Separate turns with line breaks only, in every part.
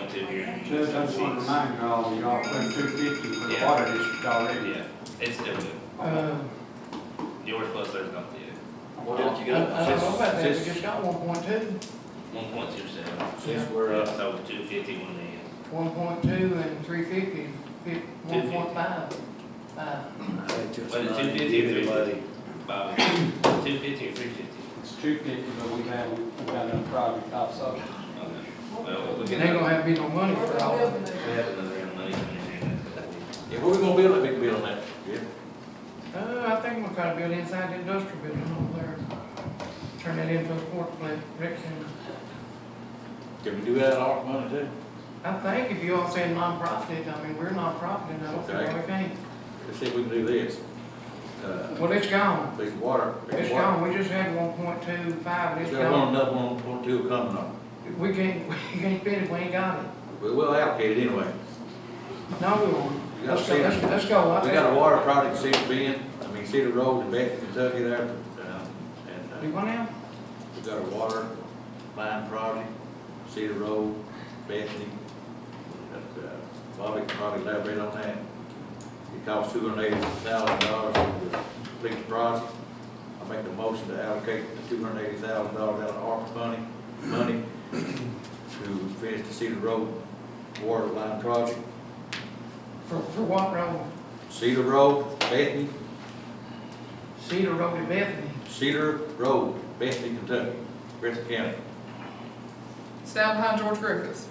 Judge, I just want to remind y'all, y'all put two fifty for the
Yeah.
water district already.
Yeah, it's still due.
Uh,
Yours plus theirs not due.
What else you
I, I don't know
got?
about that, we
Since-
just got one point two,
One point two seven.
Since we're, uh,
So two fifty one then.
one point two and three fifty, fif- one point five. Uh,
But the two fifty or three fifty? Bobby, two fifty or three fifty?
It's two fifty, but we have, we got another project also.
Okay. Well, we
they
can.
gonna have me no money for all of it.
We have another round of money coming in here.
Yeah, what we gonna build, a big building that, yeah?
Uh, I think we're trying to build inside the industrial building over there, turn that into a sports play, Rex Center.
Can we do that out of money too?
I think if you all say nonprofit, I mean, we're nonprofit, I don't see why we can't.
Let's see if we can do this. Uh,
Well, it's gone,
big water. big
it's
water.
gone, we just had one point two five, it's
Is there one,
gone.
another one, one, two coming on?
We can't, we can't spend it, we ain't got it.
We will allocate it anyway.
No, we won't.
You gotta
Let's go,
see it.
let's, let's go. I
We
think-
got a water project, Cedar Bend, I mean Cedar Road in Beck, Kentucky there, um,
Do
and uh,
what now?
we got a water line project, Cedar Road, Bethany. But, uh, Bobby can probably elaborate on that. It costs two hundred eighty thousand dollars to complete the project. I make a motion to allocate the two hundred eighty thousand dollars out of ARPA money, money to finish the Cedar Road water line project.
For, for what road?
Cedar Road, Bethany,
Cedar Road in Bethany.
Cedar Road, Bethany, Kentucky, Griffin County.
Stand behind George Griffiths.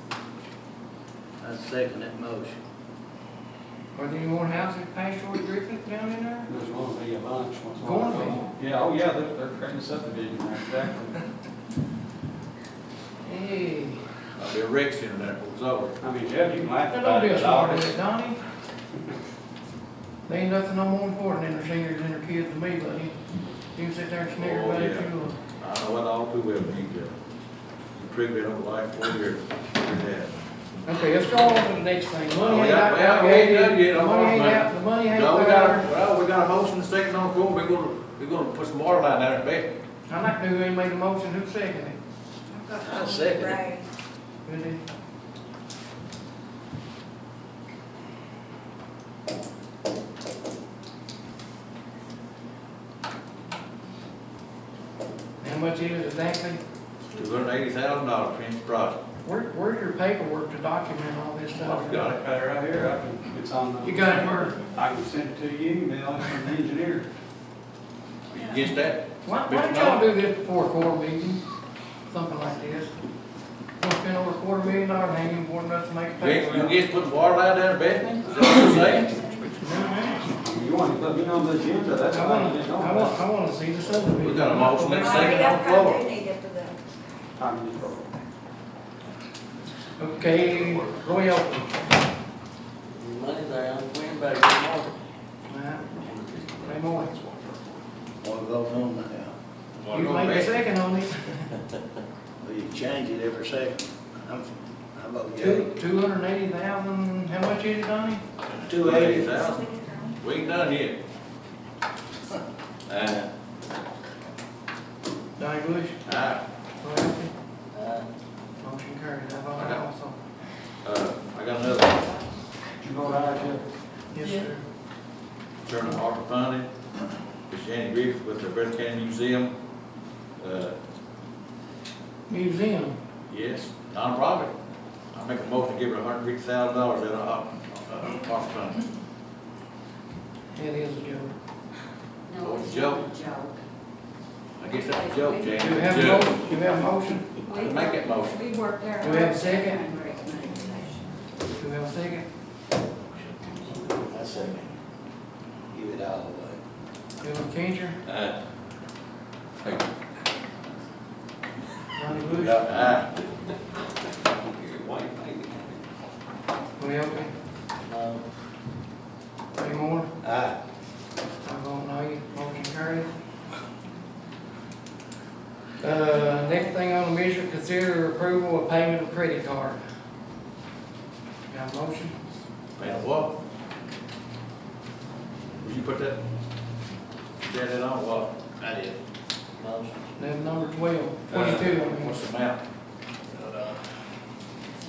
I second that motion.
Are there any more houses past George Griffith down in there?
There's going to be a bunch. once all
Going to
goes
be.
on. Yeah, oh yeah, they're, they're creating subdivision there, exactly.
Hey,
I'll be a rec center there for it's over.
I mean, Judge, you can laugh
that
about it.
don't be a
but
smart
I'll-
ass Donnie. There ain't nothing no more important than their seniors and their kids to me, buddy. You can sit there and sneer
Oh,
about it
yeah.
too.
I know what all too well need to improve it on the life for your, your dad.
Okay, let's go on to the next thing. Money
Oh,
ain't
yeah,
out,
well, we ain't done yet.
allocated.
I'm
money
on,
ain't
man.
out, the money ain't
No, we got,
there.
well, we got a motion, and a second on the floor, we're gonna, we're gonna put some water line down there in Bethany.
I like to know who made the motion, who seconded it?
I second it.
Right.
Who did? How much is it exactly?
Two hundred eighty thousand dollars, finish the project.
Where, where's your paperwork to document all this stuff?
I've
Got it got it right here, I can, it's on the.
You got it where?
I can send it to you, email it from the engineer.
Are you against that?
Why, why don't y'all do this before a quarter meeting, something like this? Don't spend over a quarter million dollars hanging important enough to make a
You ain't- you
paper.
against putting water line down in Bethany? Is that what you're saying?
You want to put me on the agenda, that's
I
why I
wanna,
didn't
I
know. that.
wanna, I wanna see the subdivision.
We got a motion, let's
Well,
second on the
that's
floor.
how they need it for them.
I'm just broke.
Okay, Roy Elphie.
Money there, I'm winning back the market.
Ray Moore.
What goes on uh, now?
Water
You
going to
made a
Bethany.
second on it.
Well, you change it every second. I'm, I vote yea.
Two, two hundred and eighty thousand, how much is it, Donnie?
Two eighty.
$280,000. We ain't done yet. Uh,
Donnie Bush?
I,
Roy Elphie?
Uh,
Motion carried, I vote
Okay.
aye also.
uh, I got another one.
Did you go to our agenda?
Yes,
Yeah.
sir.
Turner ARPA funding, Miss Jenny Griffith with the Breath County Museum. Uh,
Museum,
Yes, nonprofit. I make a motion to give her hundred fifty thousand dollars uh, out of ARPA, ARPA funding.
it is a joke.
What a joke. I guess that's a joke, Jane.
Do you have a
Joke.
motion? Do you have a motion?
Make that motion.
We worked there.
Do we have a second? Do you have a second?
I second. Give it all away.
Bill Kincher,
Uh,
Donnie Bush,
uh,
Roy Elphie,
No.
Ray Moore,
Aye.
I vote no, motion carried. Uh, next thing on the measure, consider approval of payment of credit card. Got a motion?
man, what? Would you put that, that in on what?
I did.
Motion.
Then number twelve, twenty-two, I mean,
What's the amount?